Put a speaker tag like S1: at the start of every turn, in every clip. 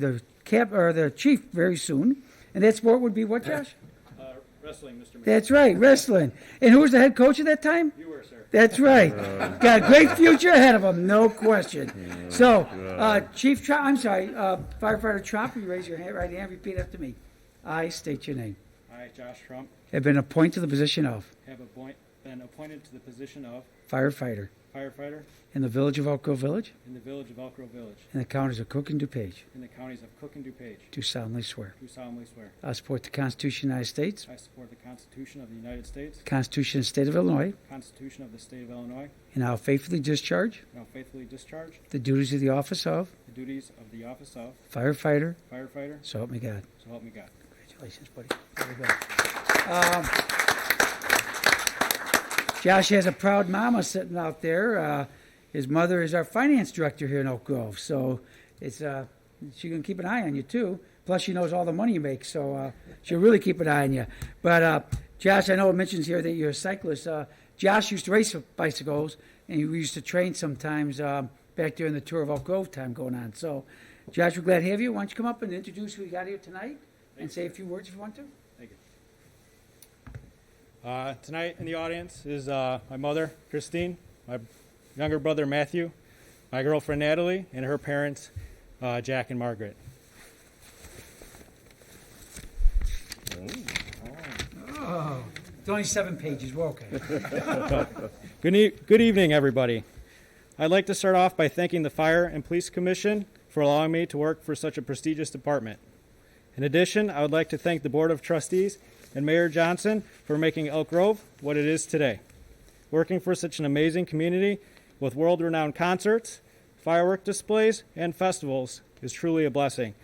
S1: the cap, or the chief very soon, and that sport would be what, Josh?
S2: Uh, Wrestling, Mr. Mayor.
S1: That's right, wrestling. And who was the head coach at that time?
S2: You were, sir.
S1: That's right. Got a great future ahead of him, no question. So, uh, Chief, Tro- I'm sorry, uh, firefighter Trump, you raise your hand, right hand, repeat after me. I state your name.
S2: I, Josh Trump,
S1: Have been appointed to the position of
S2: have appoint- been appointed to the position of
S1: firefighter
S2: firefighter
S1: in the village of Elk Grove Village
S2: in the village of Elk Grove Village
S1: and the counties of Cook and DuPage.
S2: in the counties of Cook and DuPage.
S1: Do solemnly swear.
S2: Do solemnly swear.
S1: I support the Constitution of the United States,
S2: I support the Constitution of the United States,
S1: the Constitution of the State of Illinois,
S2: Constitution of the State of Illinois,
S1: and I'll faithfully discharge
S2: and will faithfully discharge
S1: the duties of the office of
S2: the duties of the office of
S1: firefighter,
S2: firefighter.
S1: so help me God.
S2: So help me God.
S1: Congratulations, buddy. Very good. Um, Josh has a proud mama sitting out there. Uh, his mother is our finance director here in Oak Grove, so it's uh, she's gonna keep an eye on you too. Plus, she knows all the money you make, so uh, she'll really keep an eye on you. But uh, Josh, I know it mentions here that you're a cyclist. Uh, Josh used to race bicycles, and we used to train sometimes um, back during the tour of Oak Grove time going on. So, Josh, we're glad to have you. Why don't you come up and introduce who you got here tonight, and say a few words if you want to.
S2: Thank you. Uh, tonight in the audience is uh, my mother, Christine, my younger brother, Matthew, my girlfriend, Natalie, and her parents, uh, Jack and Margaret.
S1: Oh, It's only seven pages. We're okay.
S2: Good, e- good evening, everybody. I'd like to start off by thanking the Fire and Police Commission for allowing me to work for such a prestigious department. In addition, I would like to thank the Board of Trustees and Mayor Johnson for making Elk Grove what it is today. Working for such an amazing community with world renowned concerts, firework displays, and festivals is truly a blessing.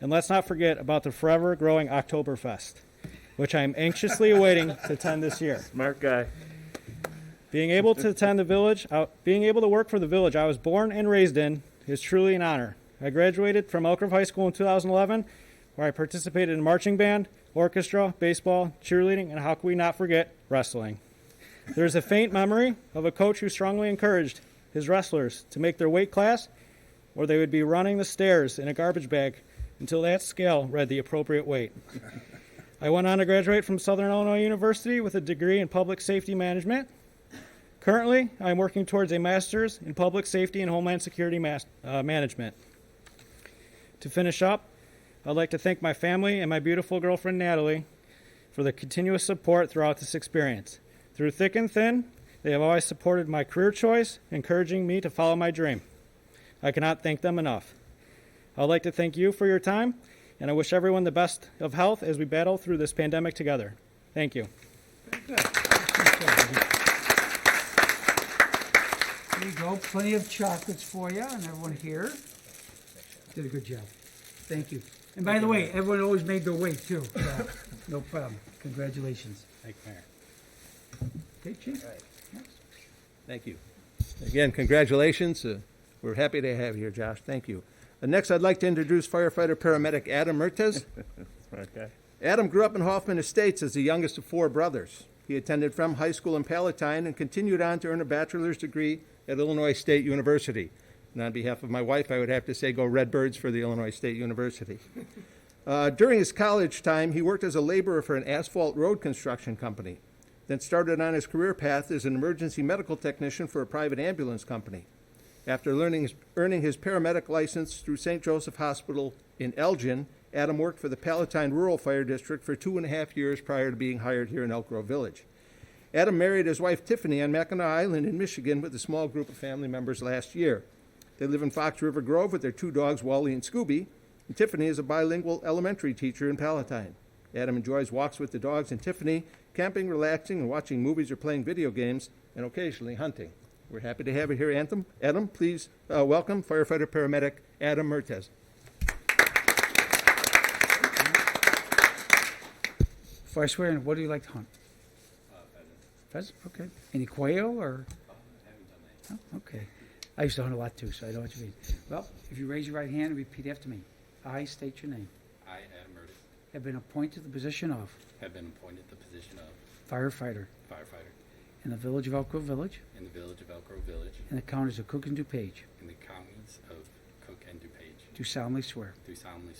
S2: And let's not forget about the forever growing Oktoberfest, which I am anxiously awaiting to attend this year.
S3: Smart guy.
S2: Being able to attend the village, uh, being able to work for the village I was born and raised in is truly an honor. I graduated from Elk Grove High School in 2011, where I participated in marching band, orchestra, baseball, cheerleading, and how could we not forget wrestling? There is a faint memory of a coach who strongly encouraged his wrestlers to make their weight class, or they would be running the stairs in a garbage bag until that scale read the appropriate weight. I went on to graduate from Southern Illinois University with a degree in public safety management. Currently, I'm working towards a master's in public safety and homeland security mas- uh, management. To finish up, I'd like to thank my family and my beautiful girlfriend Natalie for the continuous support throughout this experience. Through thick and thin, they have always supported my career choice, encouraging me to follow my dream. I cannot thank them enough. I'd like to thank you for your time, and I wish everyone the best of health as we battle through this pandemic together. Thank you.
S1: There you go, plenty of chocolates for you and everyone here. Did a good job. Thank you. And by the way, everyone always made their way too. so, No problem. Congratulations.
S2: Thank you, Mayor.
S1: Okay, Chief?
S3: Thank you. Again, congratulations. Uh, We're happy to have you here, Josh. Thank you. Uh, Next, I'd like to introduce firefighter paramedic Adam Mertes.
S4: Okay.
S3: Adam grew up in Hoffman Estates as the youngest of four brothers. He attended Frem High School in Palatine and continued on to earn a bachelor's degree at Illinois State University. And on behalf of my wife, I would have to say go Redbirds for the Illinois State University. Uh, during his college time, he worked as a laborer for an asphalt road construction company, then started on his career path as an emergency medical technician for a private ambulance company. After learning, earning his paramedic license through St. Joseph Hospital in Elgin, Adam worked for the Palatine Rural Fire District for two and a half years prior to being hired here in Elk Grove Village. Adam married his wife Tiffany on Mackinac Island in Michigan with a small group of family members last year. They live in Fox River Grove with their two dogs, Wally and Scooby. And Tiffany is a bilingual elementary teacher in Palatine. Adam enjoys walks with the dogs and Tiffany, camping, relaxing, and watching movies or playing video games, and occasionally hunting. We're happy to have you here, Anthem. Adam, please uh, welcome firefighter paramedic Adam Mertes.
S1: Before I swear in, what do you like to hunt? Pheasant, okay. Any quail or? Oh, Okay. I used to hunt a lot too, so I know what you mean. Well, if you raise your right hand and repeat after me. I state your name.
S5: I, Adam Murdock,
S1: Have been appointed to the position of
S5: have been appointed the position of
S1: firefighter
S5: firefighter
S1: in the village of Elk Grove Village
S5: in the village of Elk Grove Village
S1: and the counties of Cook and DuPage.
S5: in the counties of Cook and DuPage.
S6: do solemnly swear.
S1: do solemnly